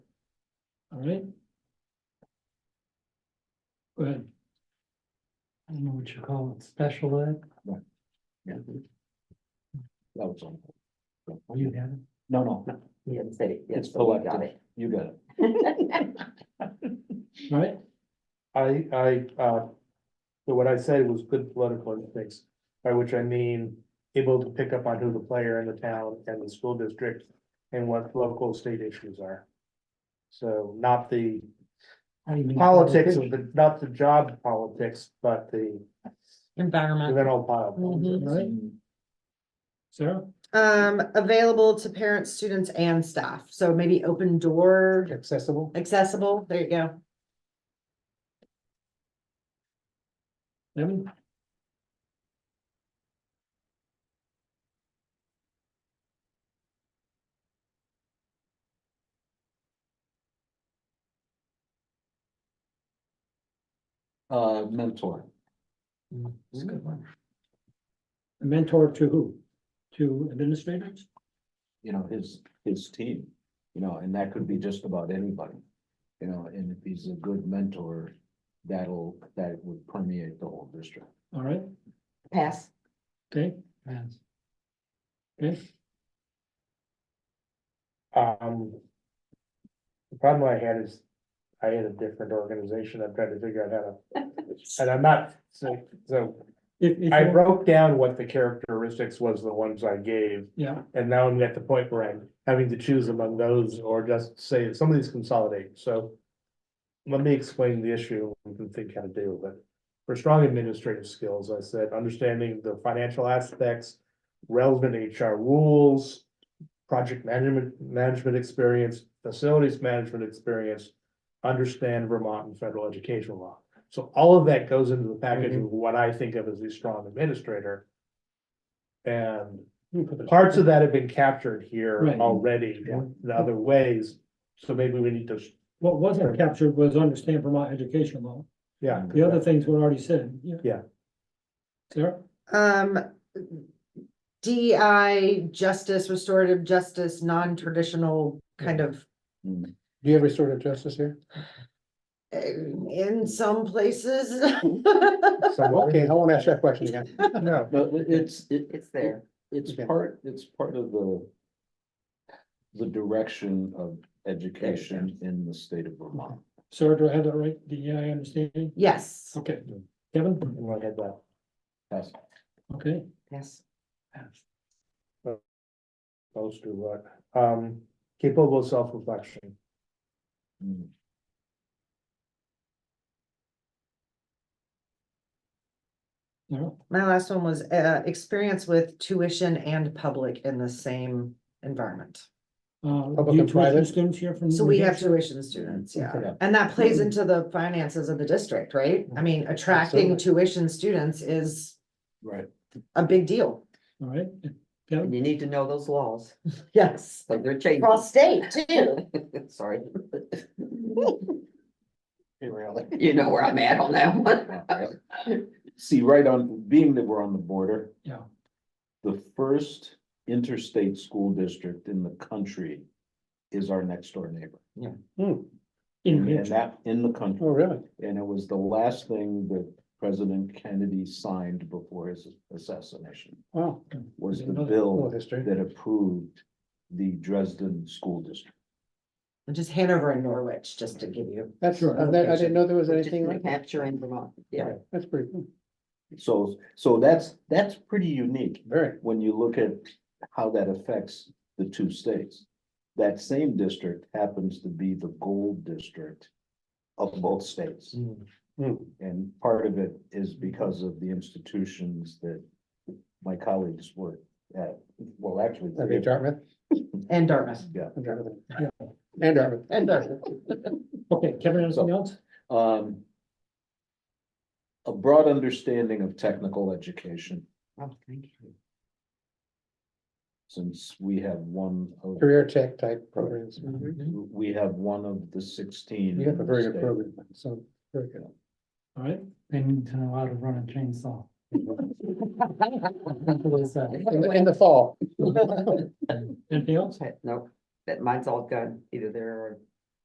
All right. Go ahead. I don't know what you call it, special ed? Yeah. That was on. Oh, you have it? No, no, He didn't say it. It's Yes, but we got collective. it. you got it. All right, I, I, uh, so what I said was good political instincts, by which I mean able to pick up on who the player in the town and the school district and what local state issues are. So not the How do you mean? politics of the, not the job politics, but the environment. general pile. politics. All right, Mm-hmm. Sarah, Um, available to parents, students and staff. So maybe open door Accessible, accessible. There you go. Evan, Uh, mentor. It's a Mm-hmm. good one. a mentor to who? To administrators? you know, his, his team, you know, and that could be just about anybody. You know, and if he's a good mentor, that'll, that would permeate the whole district. All right, Pass. okay, um. The problem I had is I had a different organization. I'm trying to figure out how to, and I'm not, so, so if, if, I you're- broke down what the characteristics was, the ones I gave, yeah, and now I'm at the point where I'm having to choose among those or just say, some of these consolidate, so. Let me explain the issue and think how to deal with it. For strong administrative skills, I said, understanding the financial aspects, relevant HR rules. Project management, management experience, facilities management experience, understand Vermont and federal education law. So all of that goes into the package of what I think of as the strong administrator. And parts of that have been captured here Right. already in other ways, so maybe we need to, what wasn't captured was understand Vermont education law, yeah. the other things were already said, yeah. Yeah. Sarah, Um. DEI, justice, restorative justice, non-traditional kind of, Do you have restorative justice here? eh, in some places. Okay, I wanna ask that question again. No, But it- it's, it, It's there. it's Okay. part, it's part of the. The direction of education in the state of Vermont. Sarah, do I have that right? The I understanding? Yes, Okay, Kevin, I had that. That's- okay, Pass. Those do what, um, capable of self-reflection, mm, Sarah, my last one was, uh, experience with tuition and public in the same environment. uh, do Public you and private. tuition students here from? So we New have Hampshire? tuition students, yeah, Yeah. and that plays into the finances of the district, right? I mean, attracting tuition students is Right. a big deal. All right, And Kevin, you need to know those laws, Yes. like they're changing. Cross state too. Sorry. You know where I'm at on that one. See, right on, being that we're on the border, yeah, the first interstate school district in the country is our next door neighbor. Hmm. in New And Hampshire. that in the country, oh, really? and it was the last thing that President Kennedy signed before his assassination. Wow. Oh, Was the Another- bill history. that approved the Dresden School District. Just Hanover and Norwich, just to give you. That's, Sure. I didn't know there was Just New Hampshire and Vermont, yeah. That's pretty hmm, cool, So, so that's, that's pretty unique very. when you look at how that affects the two states. That same district happens to be the gold district of both states. Mm. Hmm. Hmm. And part of it is because of the institutions that my colleagues were at, well, actually. That'd be Dartmouth, And Dartmouth. Yeah, and Dartmouth, and Dartmouth. And Dartmouth. Okay, Kevin, anything else? um. A broad understanding of technical education, Oh, thank you. since we have one of, career tech type programs. Mhm. we have one of the sixteen. You have a very good states. program, so, very good. All right, They need to know how to run a chainsaw. In the, in the fall, anything else? Okay, Nope, that mine's all gone, either there or